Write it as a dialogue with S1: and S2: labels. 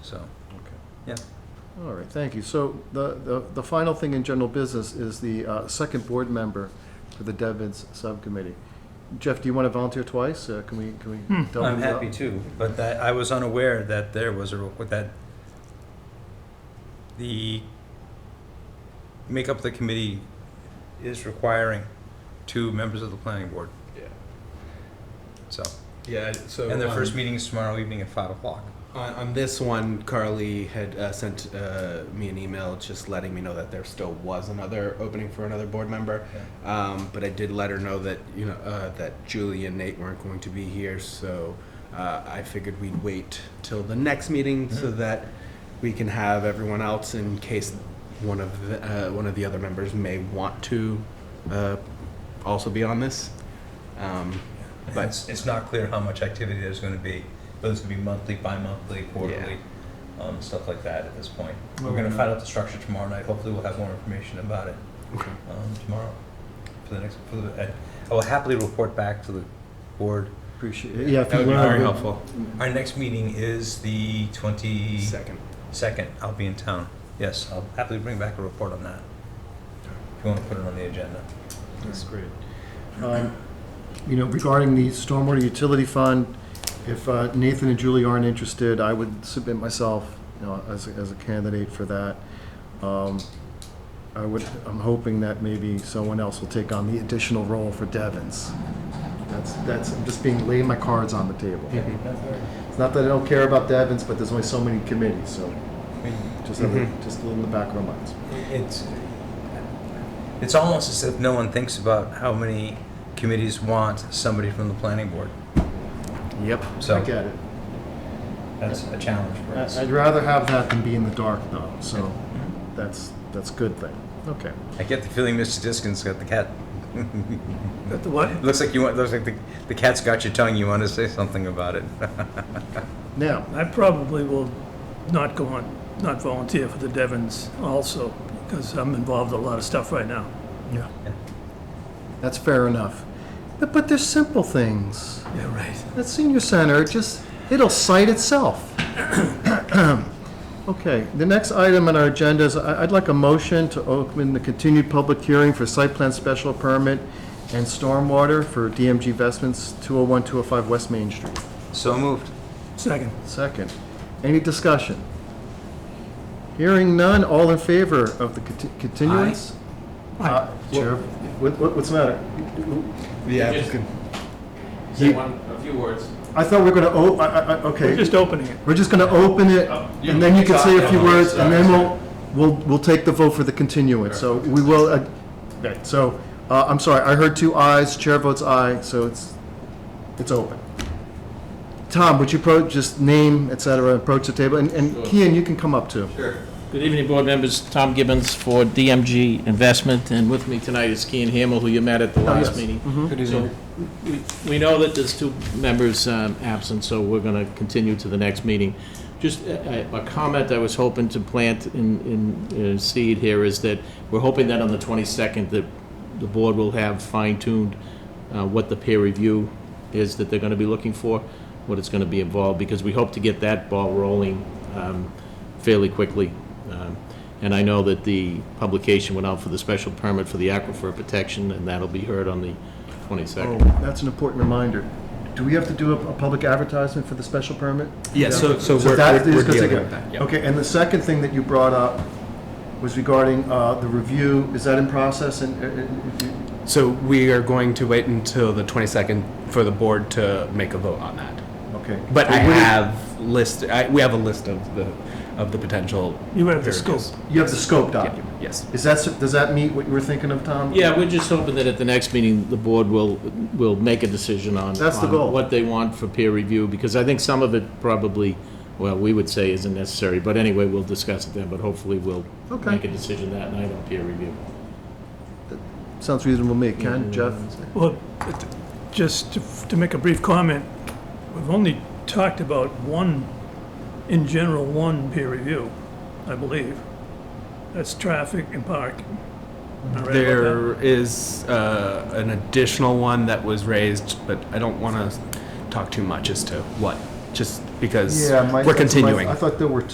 S1: so,
S2: Okay.
S1: yeah.
S2: All right, thank you. So the, the, the final thing in general business is the uh, second board member for the Devens Subcommittee. Jeff, do you want to volunteer twice? Uh, Can we, can we? double
S1: I'm
S2: it up?
S1: happy to, but that, I was unaware that there was a, with that, the makeup of the committee is requiring two members of the planning board,
S3: Yeah.
S1: so.
S3: Yeah. So
S1: And their
S3: um,
S1: first meeting is tomorrow evening at five o'clock.
S3: on, on this one, Carly had uh, sent uh, me an email just letting me know that there still was another opening for another board member. Um, but I did let her know that you know uh, that Julie and Nate weren't going to be here, so uh, I figured we'd wait till the next meeting
S1: Mm-hmm.
S3: so that we can have everyone else in case one of the, uh, one of the other members may want to uh, also be on this. Um,
S1: But
S3: But-
S1: it's, it's not clear how much activity there's gonna be, whether it's gonna be monthly, bi-monthly, quarterly, um, stuff like that at this point. We're gonna find out the structure tomorrow night, hopefully we'll have more information about it,
S3: okay.
S1: um, tomorrow, for the next, for the, and I will happily report back to the board.
S2: Appreciate, it. yeah. if
S3: That would
S2: you
S3: be
S2: wanna-
S3: very helpful.
S1: Our next meeting is the twenty-second,
S3: Second.
S1: I'll be in town, yes, I'll happily bring back a report on that. If you wanna put it on the agenda.
S3: That's great.
S2: Um, You know, regarding the stormwater utility fund, if uh, Nathan and Julie aren't interested, I would submit myself, you know, as, a- as a candidate for that. Um, I would, I'm hoping that maybe someone else will take on the additional role for Devens. That's, that's, I'm just being, laying my cards on the table. It's not that I don't care about Devens, but there's only so many committees, so just, have it- just a little in the back of our minds.
S1: It's, it's almost as if no one thinks about how many committees want somebody from the planning board.
S3: Yep.
S2: I
S1: So
S2: get it.
S1: that's a challenge for us.
S2: I- I'd rather have that than be in the dark, though, so that's, that's a good thing. Okay.
S1: I get the feeling Mr. Diskin's got the cat.
S4: Got the what?
S1: Looks like you want, looks like the, the cat's got your tongue, you want to say something about it.
S2: Now,
S4: I probably will not go on, not volunteer for the Devons also, because I'm involved in a lot of stuff right now. Yeah.
S2: that's fair enough. But, but there's simple things.
S4: Yeah, right.
S2: That senior center, it just, it'll cite itself. Okay, the next item on our agenda is, I- I'd like a motion to open the continued public hearing for site plan special permit and stormwater for DMG Investments, 201, 205 West Main Street.
S1: So moved.
S4: Second.
S2: Second. Any discussion? Hearing none, all in favor of the conti- continuance? Uh, Chair, what- what- what's the matter?
S3: The
S5: Just-
S3: applicant.
S5: Say one, a few words.
S2: I thought we were going to, oh, I- I- I-
S4: We're
S2: okay,
S4: just opening it.
S2: we're just going to open it, and then Uh, you can say a few words, and then we'll, we'll, we'll take the vote for the continuance. So we will, uh, okay, so, uh, I'm sorry, I heard two ayes, chair votes aye, so it's, it's open. Tom, would you approach, just name, et cetera, approach the table, and and Kian, you can come up too.
S5: Good evening, board members. Tom Gibbons for DMG Investment, and with me tonight is Kean Hamel, who you met at the last
S2: yes.
S5: meeting. Good evening. We know that there's two members um, absent, so we're going to continue to the next meeting. Just a a- a comment I was hoping to plant in, in uh, seed here is that we're hoping that on the 22nd, that the board will have fine-tuned uh, what the peer review is that they're going to be looking for, what it's going to be involved, because we hope to get that ball rolling um, fairly quickly. Um, And I know that the publication went out for the special permit for the aquifer protection, and that'll be heard on the 22nd.
S2: Oh, that's an important reminder. Do we have to do a, a public advertisement for the special permit?
S3: Yeah, so, so
S2: So
S3: we're,
S2: that
S3: we're
S2: is
S3: we're
S2: gonna
S3: dealing
S2: take
S3: with that.
S2: a-
S3: Yep.
S2: Okay, and the second thing that you brought up was regarding, uh, the review, is that in process and, uh, uh, uh,
S3: So we are going to wait until the 22nd for the board to make a vote on that.
S2: okay.
S3: But I
S2: what is-
S3: have list, I, we have a list of the, of the potential.
S4: You have the
S3: areas.
S4: scope.
S2: You have the scope
S3: Yeah,
S2: document.
S3: Yes.
S2: Is that, s- does that meet what you were thinking of, Tom?
S5: Yeah, we're just hoping that at the next meeting, the board will, will make a decision on.
S2: That's the goal.
S5: on What they want for peer review, because I think some of it probably, well, we would say isn't necessary, but anyway, we'll discuss it then, but hopefully we'll
S2: Okay.
S5: make a decision that night on peer review.
S2: Sounds reasonable to me. Ken, Jeff?
S4: Well, it- just to- to make a brief comment, we've only talked about one, in general, one peer review, I believe. That's traffic and parking. Am I right about that?
S3: There is, uh, an additional one that was raised, but I don't want to talk too much as to what, just because
S2: my-
S3: we're
S2: that's my-
S3: continuing.
S2: I thought there were